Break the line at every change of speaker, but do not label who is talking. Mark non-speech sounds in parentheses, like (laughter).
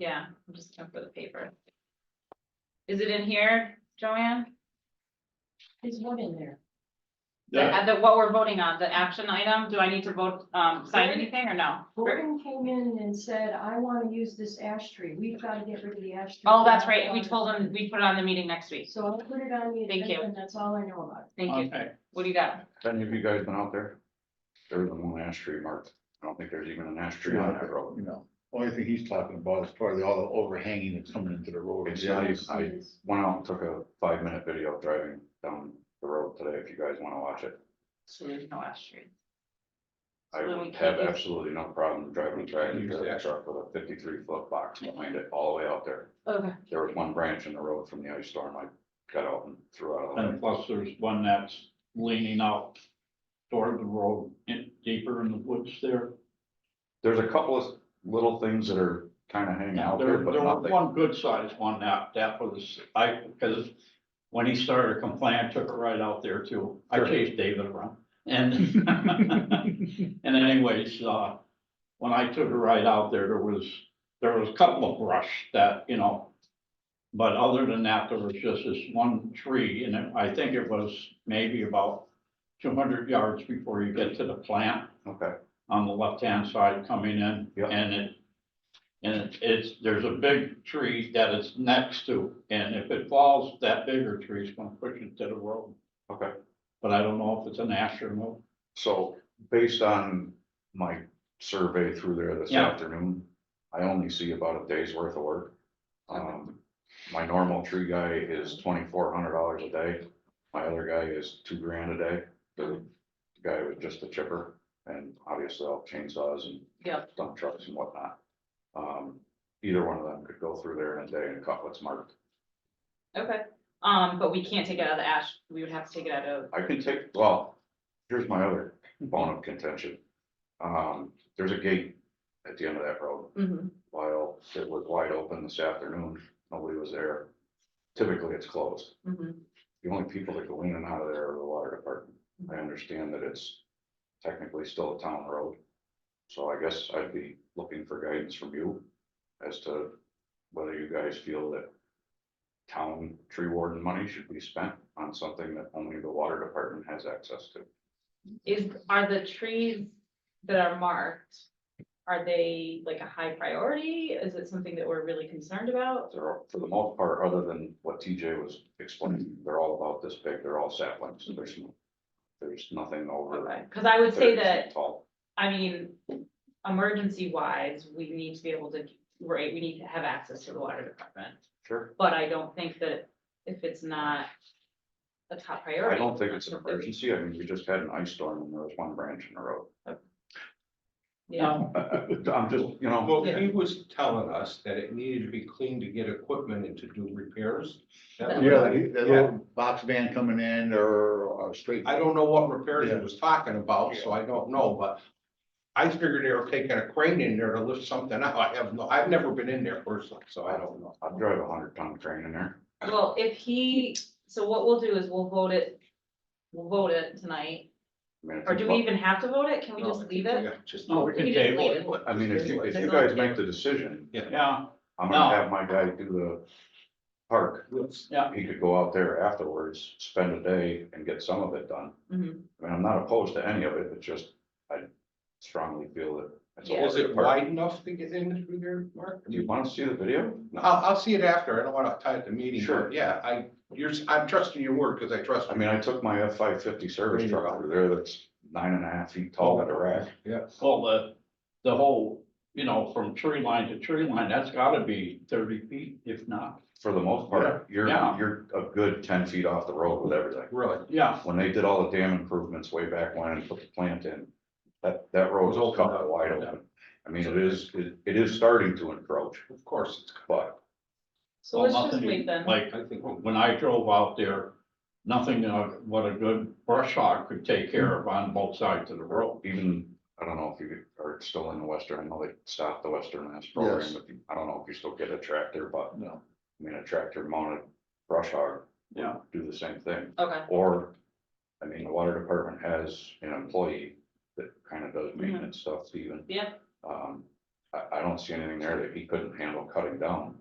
Yeah, I'm just looking for the paper. Is it in here, Joanne?
There's one in there.
The- uh, The, what we're voting on, the action item, do I need to vote, um, sign anything or no?
Gordon came in and said, I wanna use this ash tree. We've gotta get rid of the ash tree.
Oh, that's right, we told them, we put it on the meeting next week,
So I'll put it on the
Thank
agenda
you.
and that's all I know about
thank you,
Okay.
what do you got?
Have Any of you guys been out there? There isn't one ash tree marked. I don't think there's even an ash tree on that road.
You know, only thing he's talking about is probably all the overhanging that's coming into the road.
Yeah,
it.
I went out and took a five minute video driving down the road today. If you guys want to watch it.
So there's no ash tree.
I
So then we
would
can't
have
use-
absolutely no problem driving, driving the truck with a fifty-three foot box behind it all the way out there.
Okay,
There was one branch in the road from the ice storm. I got out and threw out. of
And
the way.
plus there's one that's leaning out toward the road in deeper in the woods there.
There's a couple of little things that are kind of hanging out there,
There,
but
there was
nothing.
one good sized one that, that was, I, because when he started complaining, I took it right out there too. I
Sure.
chased David around
(laughs)
and, (laughs) and then anyways, uh, when I took it right out there, there was, there was a couple of brush that, you know. But other than that, there was just this one tree and it- I think it was maybe about two hundred yards before you get to the plant
Okay,
on the left-hand side coming in.
Yeah.
And it, and it's, there's a big tree that it's next to, and if it falls, that bigger tree's gonna push it to the road.
okay.
But I don't know if it's an ash or no.
So based on my survey through there this
Yeah.
afternoon, I only see about a day's worth of work. Um, my normal tree guy is twenty-four hundred dollars a day. My other guy is two grand a day. The guy was just a chipper and obviously all chainsaws and
Yep.
dump trucks and whatnot. Um, either one of them could go through there in a day and cut what's marked.
okay, um, but we can't take it out of the ash, we would have to take it out of,
I can take, well, here's my other bone of contention. Um, there's a gate at the end of that road.
Mhm.
While it was wide open this afternoon, nobody was there. Typically, it's closed.
Mhm.
The only people that go in and out of there are the water department. I understand that it's technically still a town road. So I guess I'd be looking for guidance from you as to whether you guys feel that town tree warden money should be spent on something that only the water department has access to.
is, are the trees that are marked? Are they like a high priority, is it something that we're really concerned about?
They're, all- for the most part, other than what TJ was explaining, they're all about this big, they're all saplings, there's, no- there's nothing over.
Okay, cause I would say
30 feet
that
Tall.
I mean, emergency wise, we need to be able to, right, we need to have access to the water department.
Sure.
But I don't think that if it's not a top priority.
I don't think it's an
something-
emergency, I mean, we just had an ice storm and there was one branch in the road.
Yeah,
I- I- I'm just, you know.
Well, he was telling us that it needed to be cleaned to get equipment and to do repairs. That was-
Yeah, that
Yeah.
little box van coming in or a straight.
I don't know what repairs he was talking about, so I don't know, but I figured they were taking a crane in there to lift something out. I have no, I've never been in there personally, so I don't know.
I'd drive a hundred ton crane in there.
well, if he, so what we'll do is we'll vote it, we'll vote it tonight,
I mean, if
or
you
do we
vote-
even have to vote it? Can we
No, I
just
think
leave
we
it?
got- Just.
No, we can
We just
table
leave
it.
it.
I mean, if you, if you
That's
guys
all.
make the decision,
Yeah,
I'm gonna
No.
have my guy do the park.
Let's-
He could go out there afterwards, spend a day and get some of it done.
Mhm.
I mean, I'm not opposed to any of it, it's just, I strongly feel that. it's a
Yeah.
Is
larger
it
park.
wide enough to get in through there, Mark?
Do you wanna see the video?
I'll, I'll see it after. I don't want to tie it to meeting. but
Sure.
Yeah, I, you're, I'm trusting your word because I trust.
I
you.
mean, I took my F five fifty service truck over there that's nine and a half feet tall at a rack.
Yeah.
well, the, the whole, you know, from tree line to tree line, that's gotta be thirty feet, if not.
For the most part, you're,
Yeah.
you're a good ten feet off the road with everything.
Really?
Yeah,
when they did all the dam improvements way back when and put the plant in, that, that road was cut wide open. I mean, it is, it- it is starting to encroach,
Of course, it's,
but
So
Well,
let's just
nothing
wait then.
Like,
I think.
when I drove out there, nothing uh, what a good brush hog could take care of on both sides of the road.
even, I don't know if you are still in the western, I know they stopped the western last program,
Yes.
but you- I don't know if you still get a tractor, but
No.
I mean, a tractor mounted brush hog. would
Yeah.
Do the same thing,
Okay,
or, I mean, the water department has an employee that kind of does maintenance stuff even.
Yeah.
Um, I, I don't see anything there that he couldn't handle cutting down.